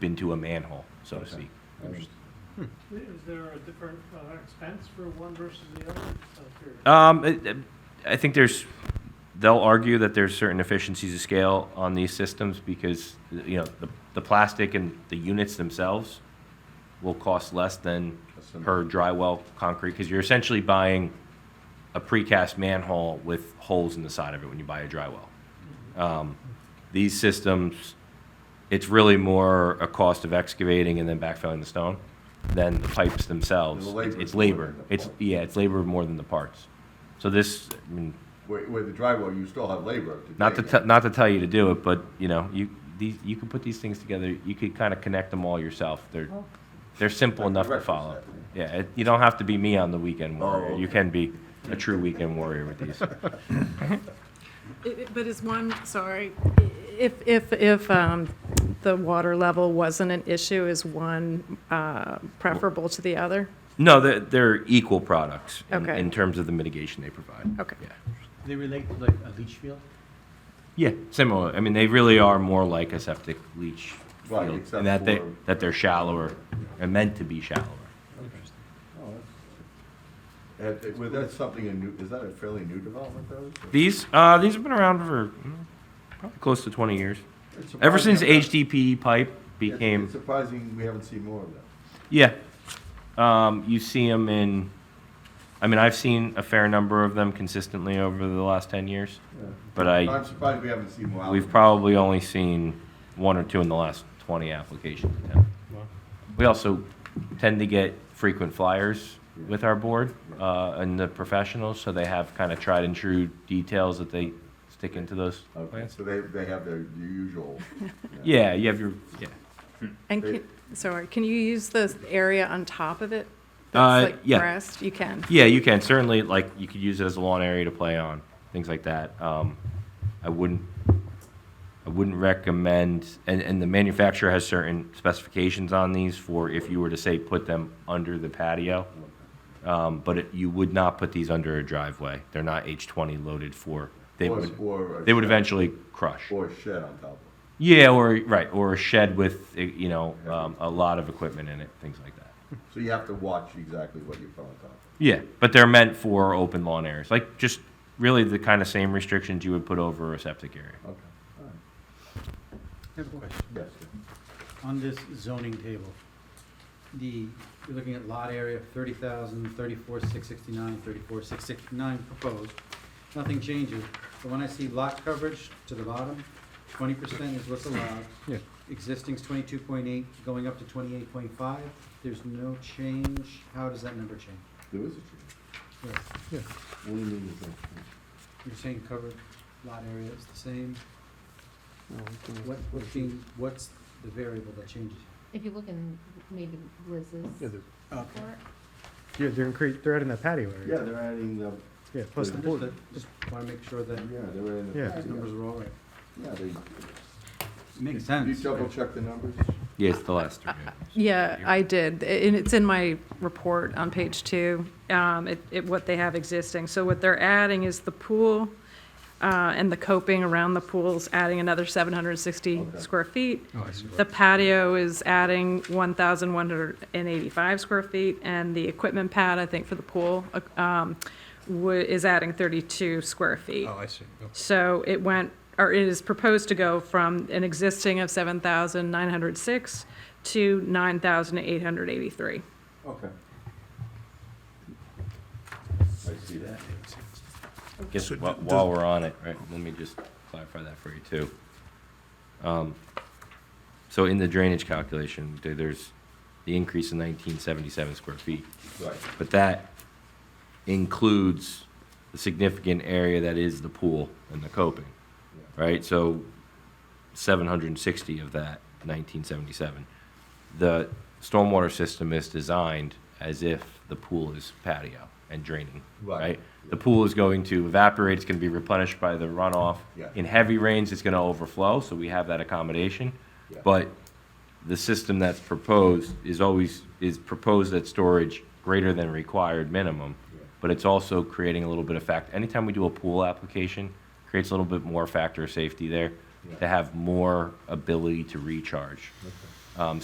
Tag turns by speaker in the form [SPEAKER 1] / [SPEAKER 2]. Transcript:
[SPEAKER 1] into a manhole, so to speak.
[SPEAKER 2] Is there a different uh, expense for one versus the other? Just out of curiosity.
[SPEAKER 1] Um, it- it- I think there's, they'll argue that there's certain efficiencies of scale on these systems because, you know, the, the plastic and the units themselves will cost less than per dry well concrete, because you're essentially buying a precast manhole with holes in the side of it when you buy a dry well. Um, These systems, it's really more a cost of excavating and then backfilling the stone than the pipes themselves.
[SPEAKER 3] And the labor
[SPEAKER 1] It's
[SPEAKER 3] is more than
[SPEAKER 1] labor.
[SPEAKER 3] the
[SPEAKER 1] It's,
[SPEAKER 3] parts.
[SPEAKER 1] yeah, it's labor more than the parts. So this, I mean,
[SPEAKER 3] Where, where the drywall, you still have labor. to
[SPEAKER 1] not to,
[SPEAKER 3] dig
[SPEAKER 1] te-
[SPEAKER 3] it.
[SPEAKER 1] not to tell you to do it, but, you know, you, these, you can put these things together, you could kind of connect them all yourself. They're, they're simple
[SPEAKER 3] Like the
[SPEAKER 1] enough to
[SPEAKER 3] Oh. breakfast
[SPEAKER 1] follow.
[SPEAKER 3] app.
[SPEAKER 1] Yeah, it- you don't have to be me on the weekend
[SPEAKER 3] Oh,
[SPEAKER 1] warrior. You
[SPEAKER 3] okay.
[SPEAKER 1] can be a true weekend warrior with these.
[SPEAKER 4] It- it- But is one, sorry, if, if, if um, the water level wasn't an issue, is one uh, preferable to the other?
[SPEAKER 1] No, they're, they're equal products in,
[SPEAKER 4] Okay.
[SPEAKER 1] in terms of the mitigation they provide.
[SPEAKER 4] Okay.
[SPEAKER 1] Yeah.
[SPEAKER 5] They relate to like a leach field?
[SPEAKER 1] Yeah, similar. I mean, they really are more like a septic leach
[SPEAKER 3] Right,
[SPEAKER 1] field,
[SPEAKER 3] except
[SPEAKER 1] and that they,
[SPEAKER 3] for-
[SPEAKER 1] that they're shallower, are meant to be shallower.
[SPEAKER 5] Interesting.
[SPEAKER 3] And it- well, that's something a new, is that a fairly new development though?
[SPEAKER 1] These, uh, these have been around for mm, probably close to twenty years.
[SPEAKER 3] It's
[SPEAKER 1] Ever
[SPEAKER 3] surprising
[SPEAKER 1] since
[SPEAKER 3] how that-
[SPEAKER 1] HDPE pipe
[SPEAKER 3] it's- It's
[SPEAKER 1] became,
[SPEAKER 3] surprising we haven't seen more of that.
[SPEAKER 1] yeah. Um, you see them in, I mean, I've seen a fair number of them consistently over the last ten years, but I,
[SPEAKER 3] I'm surprised we haven't seen more. out
[SPEAKER 1] we've
[SPEAKER 3] of it.
[SPEAKER 1] probably only seen one or two in the last twenty applications. in town. We also tend to get frequent flyers with our board uh, and the professionals, so they have kind of tried and true details that they stick into those
[SPEAKER 3] Okay,
[SPEAKER 1] plans.
[SPEAKER 3] so they, they have their usual.
[SPEAKER 1] Yeah, you have your, yeah.
[SPEAKER 4] And can, sorry, can you use the area on top of it?
[SPEAKER 1] Uh,
[SPEAKER 4] That's like
[SPEAKER 1] yeah.
[SPEAKER 4] grassed? You can?
[SPEAKER 1] Yeah, you can, certainly, like, you could use it as a lawn area to play on, things like that. Um, I wouldn't, I wouldn't recommend, and, and the manufacturer has certain specifications on these for if you were to say, put them under the patio. Um, but it- you would not put these under a driveway. They're not H twenty loaded for, they
[SPEAKER 3] Or-
[SPEAKER 1] would,
[SPEAKER 3] or a
[SPEAKER 1] they would
[SPEAKER 3] shed-
[SPEAKER 1] eventually crush.
[SPEAKER 3] Or a shed on top of
[SPEAKER 1] Yeah, or, right, or a shed with, eh, you know, um, a lot of equipment in it, things like that.
[SPEAKER 3] it. So you have to watch exactly what you put on top.
[SPEAKER 1] Yeah, but they're meant for open lawn areas, like just really the kind of same restrictions you would put over a septic area.
[SPEAKER 3] of. Okay, all right.
[SPEAKER 5] I have a question.
[SPEAKER 3] Yes.
[SPEAKER 5] On this zoning table, the, you're looking at lot area of thirty thousand, thirty-four, six sixty-nine, thirty-four, six sixty-nine proposed. Nothing changes, but when I see lot coverage to the bottom, twenty percent is what's allowed.
[SPEAKER 6] Yeah.
[SPEAKER 5] Existing's twenty-two point eight, going up to twenty-eight point five, there's no change, how does that number change?
[SPEAKER 3] There is a tree.
[SPEAKER 5] Yes,
[SPEAKER 3] What do you mean there's no tree?
[SPEAKER 5] You're saying covered lot area is the same, what, what's being, what's the variable that changes?
[SPEAKER 7] If you look in maybe Liz's
[SPEAKER 6] Yeah,
[SPEAKER 7] report,
[SPEAKER 6] they're, yeah, they're incre- they're adding that patio
[SPEAKER 3] Yeah,
[SPEAKER 6] area.
[SPEAKER 3] they're adding the,
[SPEAKER 6] Yeah, plus the
[SPEAKER 5] Understood.
[SPEAKER 6] pool.
[SPEAKER 5] Just wanna make sure that
[SPEAKER 3] yeah, they're adding the.
[SPEAKER 6] Yeah.
[SPEAKER 5] these numbers are all right.
[SPEAKER 3] Yeah, they.
[SPEAKER 5] Makes
[SPEAKER 3] You
[SPEAKER 5] sense.
[SPEAKER 3] double check the numbers?
[SPEAKER 1] Yeah, it's the last three.
[SPEAKER 4] Yeah, I did, I- and it's in my report on page two, um, it, it, what they have existing. So what they're adding is the pool, uh, and the coping around the pool's adding another seven hundred and sixty
[SPEAKER 3] Okay.
[SPEAKER 4] square feet.
[SPEAKER 5] Oh, I see.
[SPEAKER 4] The patio is adding one thousand one hundred and eighty-five square feet, and the equipment pad, I think, for the pool, uh, um, wa- is adding thirty-two square feet.
[SPEAKER 5] Oh.
[SPEAKER 6] I see.
[SPEAKER 4] So it went, or it is proposed to go from an existing of 7,906 to 9,883.
[SPEAKER 3] Okay. I see that.
[SPEAKER 1] Guess wh- while we're on it, right, let me just clarify that for you too. Um, So in the drainage calculation, there- there's the increase in nineteen seventy-seven square feet,
[SPEAKER 3] Right,
[SPEAKER 1] but that includes the significant area that is the pool and the coping.
[SPEAKER 3] yeah,
[SPEAKER 1] right? So 760 of that 1977. The stormwater system is designed as if the pool is patio and draining,
[SPEAKER 3] Right.
[SPEAKER 1] right? The pool is going to evaporate, it's going to be replenished by the runoff.
[SPEAKER 3] Yeah.
[SPEAKER 1] In heavy rains, it's going to overflow, so we have that accommodation.
[SPEAKER 3] Yeah.
[SPEAKER 1] But the system that's proposed is always, is proposed at storage greater than required minimum
[SPEAKER 3] yeah.
[SPEAKER 1] but it's also creating a little bit of fact. Anytime we do a pool application, creates a little bit more factor of safety there
[SPEAKER 3] Yeah.
[SPEAKER 1] to have more ability to recharge. Um,